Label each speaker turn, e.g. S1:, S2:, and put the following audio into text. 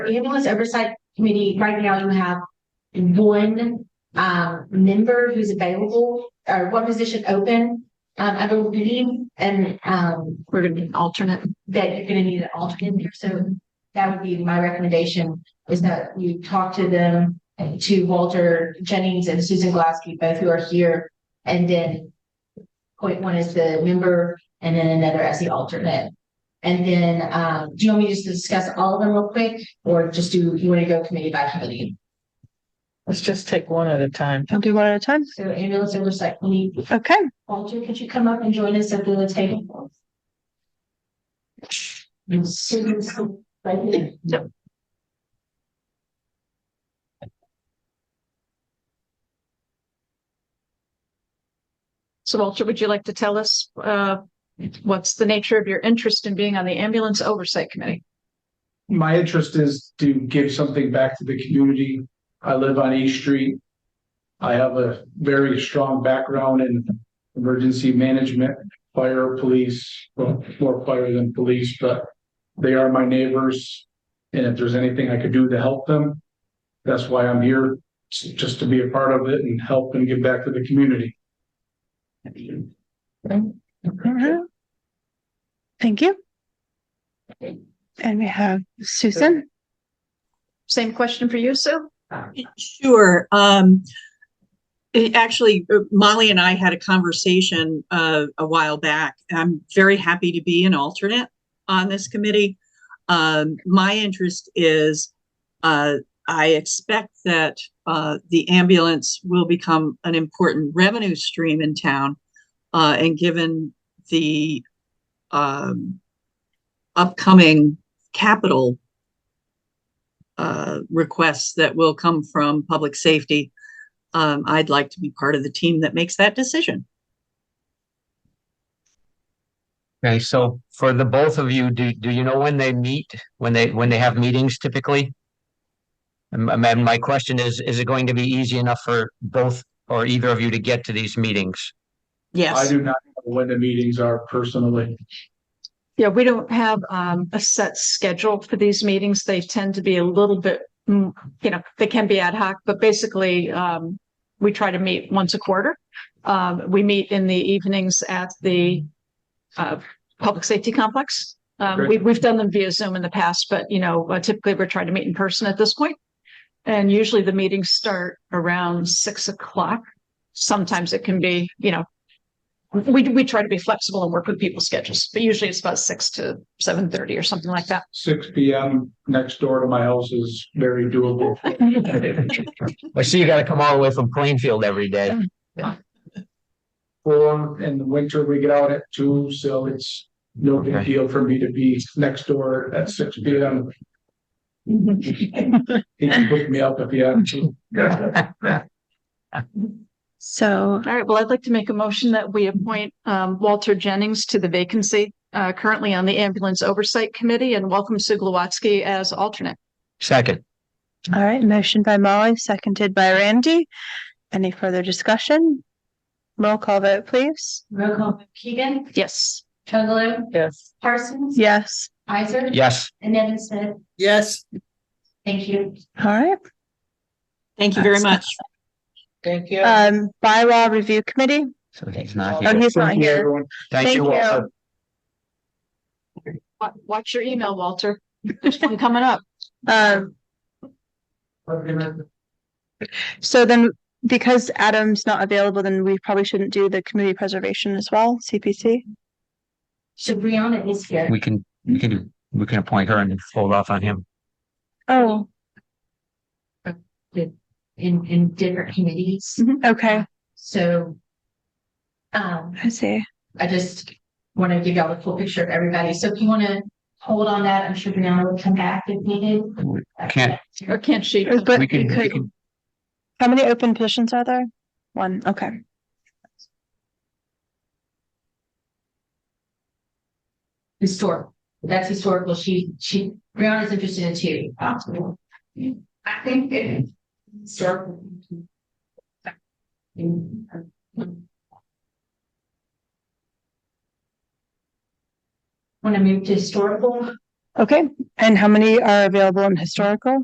S1: ambulance oversight committee, right now you have one um member who's available or one position open. Um, I believe, and um
S2: We're gonna need alternate.
S1: that you're gonna need an alternate there, so that would be my recommendation is that you talk to them to Walter Jennings and Susan Glasgow, both who are here, and then point one is the member and then another as the alternate. And then, um, do you want me just to discuss all of them real quick, or just do, you wanna go committee by committee?
S3: Let's just take one at a time.
S2: I'll do one at a time.
S1: So ambulance oversight, committee.
S2: Okay.
S1: Walter, could you come up and join us at the table? And Susan's right here.
S2: So Walter, would you like to tell us, uh, what's the nature of your interest in being on the ambulance oversight committee?
S4: my interest is to give something back to the community. I live on East Street. I have a very strong background in emergency management, fire, police, well, more fire than police, but they are my neighbors. And if there's anything I could do to help them, that's why I'm here, s- just to be a part of it and help and give back to the community.
S5: Thank you. And we have Susan.
S2: Same question for you, Sue?
S6: Sure. Um, it actually, uh, Molly and I had a conversation, uh, a while back. I'm very happy to be an alternate on this committee. Um, my interest is, uh, I expect that, uh, the ambulance will become an important revenue stream in town. Uh, and given the, um, upcoming capital uh, requests that will come from public safety. Um, I'd like to be part of the team that makes that decision.
S7: Okay, so for the both of you, do, do you know when they meet, when they, when they have meetings typically? And, my- and my question is, is it going to be easy enough for both or either of you to get to these meetings?
S4: I
S6: Yes.
S4: do not know when the meetings are personally.
S2: Yeah, we don't have, um, a set schedule for these meetings. They tend to be a little bit, mm, you know, they can be ad hoc, but basically, um, we try to meet once a quarter. Um, we meet in the evenings at the, uh, Public Safety Complex. Um,
S4: Great.
S2: we, we've done them via Zoom in the past, but you know, uh, typically we're trying to meet in person at this point. And usually the meetings start around six o'clock. Sometimes it can be, you know, we, we try to be flexible and work with people's schedules, but usually it's about six to seven thirty or something like that.
S4: Six P M next door to my house is very doable.
S7: I see you gotta come all the way from Plainfield every day.
S4: four in the winter, we get out at two, so it's no big
S7: Okay.
S4: deal for me to be next door at six P M. He can pick me up if he had to.
S5: So
S2: All right, well, I'd like to make a motion that we appoint um Walter Jennings to the vacancy uh currently on the Ambulance Oversight Committee and welcome Sue Glowatsky as alternate.
S7: Second,
S5: all right, motion by Molly, seconded by Randy. Any further discussion? Roll call vote, please.
S1: Roll call, Keegan,
S2: Yes.
S1: Chugalo,
S3: Yes.
S1: Parsons.
S5: Yes.
S1: Isaac.
S7: yes,
S1: And Nevin Smith,
S3: Yes.
S1: thank you.
S5: All right.
S6: Thank you very much.
S3: Thank you.
S5: Um, bylaw review committee.
S7: so he's not
S5: Oh,
S7: here.
S5: he's not
S4: Thank you,
S5: here.
S4: everyone.
S7: Thank you,
S5: thank you.
S7: Walter.
S2: Wa- Watch your email, Walter. There's one coming up.
S5: Um, so then because Adam's not available, then we probably shouldn't do the community preservation as well, CPC.
S1: So Brianna is here.
S7: We can, we can, we can appoint her and hold off on him.
S5: Oh,
S1: in, in different committees,
S5: Mm-hmm. okay.
S1: so. Um,
S5: I see.
S1: I just want to give y'all the full picture of everybody, so if you want to hold on that, I'm sure Brianna will come back if needed.
S7: Can't,
S2: Or can't she?
S5: But
S7: we
S5: you
S7: can, we
S5: could,
S7: can,
S5: how many open positions are there? One, okay.
S1: Historical, that's historical, she, she, Brianna's interested in two. I think it. Historical. Want to move to historical?
S5: Okay, and how many are available in historical?